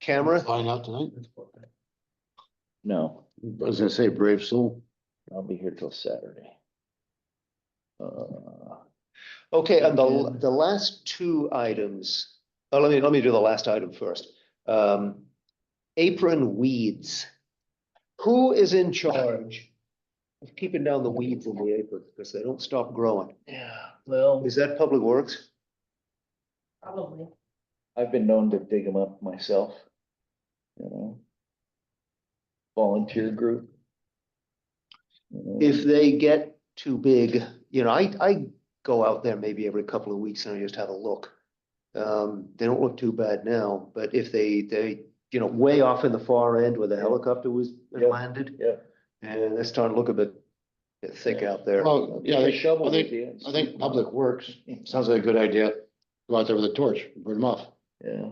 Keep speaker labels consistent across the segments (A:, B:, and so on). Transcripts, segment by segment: A: camera?
B: Flying out tonight?
C: No,
B: I was gonna say brave soul.
C: I'll be here till Saturday. Uh,
A: Okay, and the,
C: And-
A: the last two items, oh, let me, let me do the last item first. Um, apron weeds. Who is in charge of keeping down the weeds in the apron because they don't stop growing?
D: Yeah, well.
A: Is that Public Works?
E: Probably.
C: I've been known to dig them up myself. You know? Volunteer group. you know,
A: If they get too big, you know, I, I go out there maybe every couple of weeks and I just have a look. Um, they don't look too bad now, but if they, they, you know, way off in the far end where the helicopter was
C: Yeah.
A: landed.
C: Yeah.
A: And they're starting to look a bit bit thick
C: Yeah.
A: out there.
B: Oh, yeah,
C: take a
B: they,
C: shovel
B: I think,
C: with you and
B: I
C: scoop 'em
B: think
C: up.
B: Public Works, sounds like a good idea. Go out there with a torch, burn them off.
C: Yeah,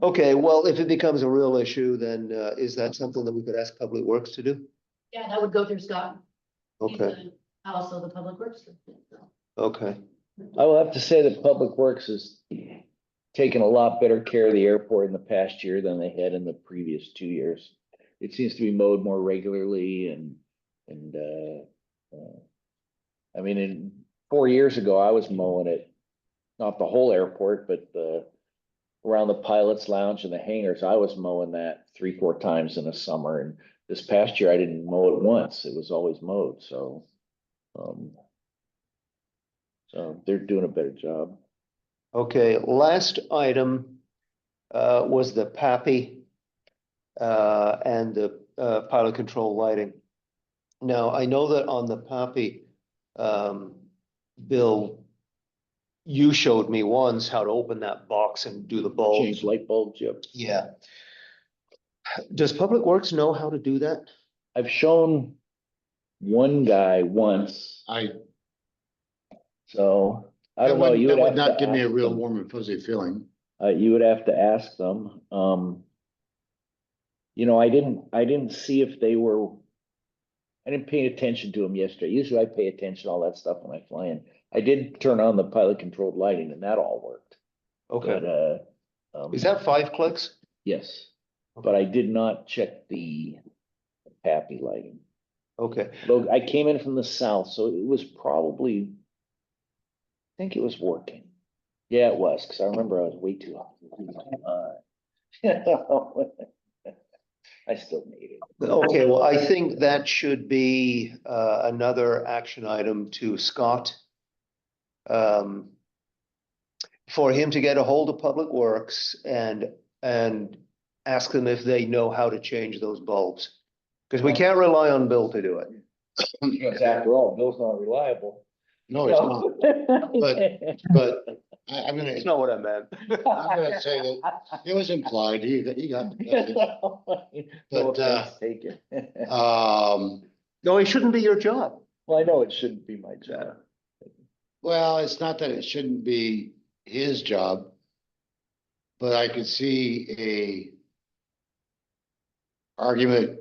A: Okay, well, if it becomes a real issue, then uh, is that something that we could ask Public Works to do?
E: Yeah, that would go through Scott. He's
A: Okay,
E: the- Also the public works. director, so.
A: okay.
C: I will have to say that Public Works has taken a lot better care of the airport in the past year than they had in the previous two years. It seems to be mowed more regularly and, and, uh, uh, I mean, in, four years ago, I was mowing it, not the whole airport, but, uh, around the pilot's lounge and the hangars, I was mowing that three, four times in a summer, and this past year, I didn't mow it once, it was always mowed, so. Um, so they're doing a better job.
A: Okay, last item uh, was the PAPI uh, and the uh, pilot control lighting. Now, I know that on the PAPI, um, Bill, you showed me once how to open that box and do the bulbs.
C: Change light bulbs, yep.
A: Yeah. Does Public Works know how to do that?
C: I've shown one guy once,
B: I,
C: so I
B: that
C: don't know.
B: would,
C: you
B: that
C: have
B: would
C: to
B: not give me a
C: ask
B: real
C: them.
B: warm and fuzzy feeling.
C: Uh, you would have to ask them, um. You know, I didn't, I didn't see if they were. I didn't pay attention to them yesterday. Usually I pay attention to all that stuff when I fly in. I did turn on the pilot controlled lighting and that all worked, but,
A: Okay,
C: uh. um,
A: is that five clicks?
C: Yes, but I did not check the happy lighting.
A: Okay,
C: Look, I came in from the south, so it was probably. I think it was working. Yeah, it was, cause I remember I was way too hot. Uh, I still need it.
A: okay, well, I think that should be uh another action item to Scott. Um. For him to get a hold of Public Works and and ask them if they know how to change those bulbs. Cause we can't rely on Bill to do it.
C: Because after all, Bill's not reliable.
B: No, it's not,
C: But.
B: but I, I'm gonna,
A: That's not what I meant.
B: I'm gonna say that it was implied, he, got- he got.
C: No
B: But, uh,
C: offense taken.
B: Um,
A: No, it shouldn't be your job.
C: Well, I know it shouldn't be my job.
B: well, it's not that it shouldn't be his job. But I could see a argument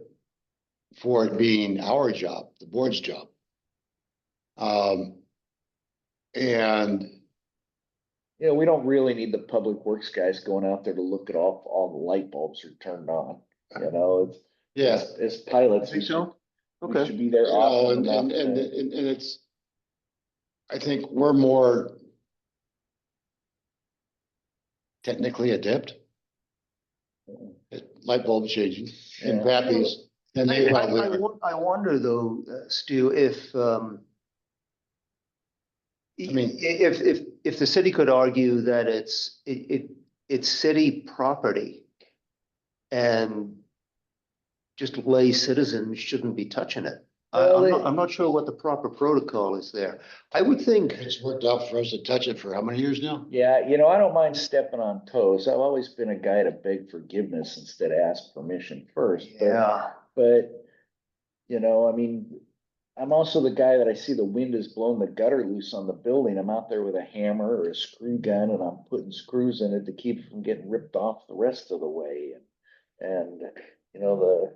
B: for it being our job, the board's job. Um, and
C: You know, we don't really need the public works guys going out there to look at all, all the light bulbs are turned on, you know, it's.
B: yeah,
C: As pilots. we should- we
A: Okay,
C: Should be there
B: you know,
C: often
B: and,
C: enough.
B: and, and, and and it's, I think we're more technically adept at light bulb changing and
C: Yeah.
B: crappies than
A: I,
B: they
A: I,
B: probably
A: I
B: are.
A: won- I wonder though, uh, Stu, if, um. i-
B: mean-
A: i- If, if, if the city could argue that it's, it, it, it's city property. And just lay citizens shouldn't be touching it. I,
C: Well,
A: I'm
C: it-
A: not, I'm not sure what the proper protocol is there. I would think,
B: It's worked out for us to touch it for how many years now?
C: Yeah, you know, I don't mind stepping on toes. I've always been a guy to beg forgiveness instead of ask permission first. but-
A: yeah,
C: But, you know, I mean, I'm also the guy that I see the wind has blown the gutter loose on the building. I'm out there with a hammer or a screw gun and I'm putting screws in it to keep it from getting ripped off the rest of the way. And, and, you know,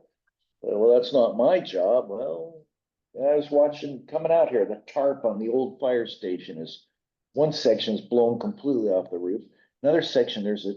C: the, well, that's not my job. Well, I was watching, coming out here, the tarp on the old fire station is, one section's blown completely off the roof. Another section, there's a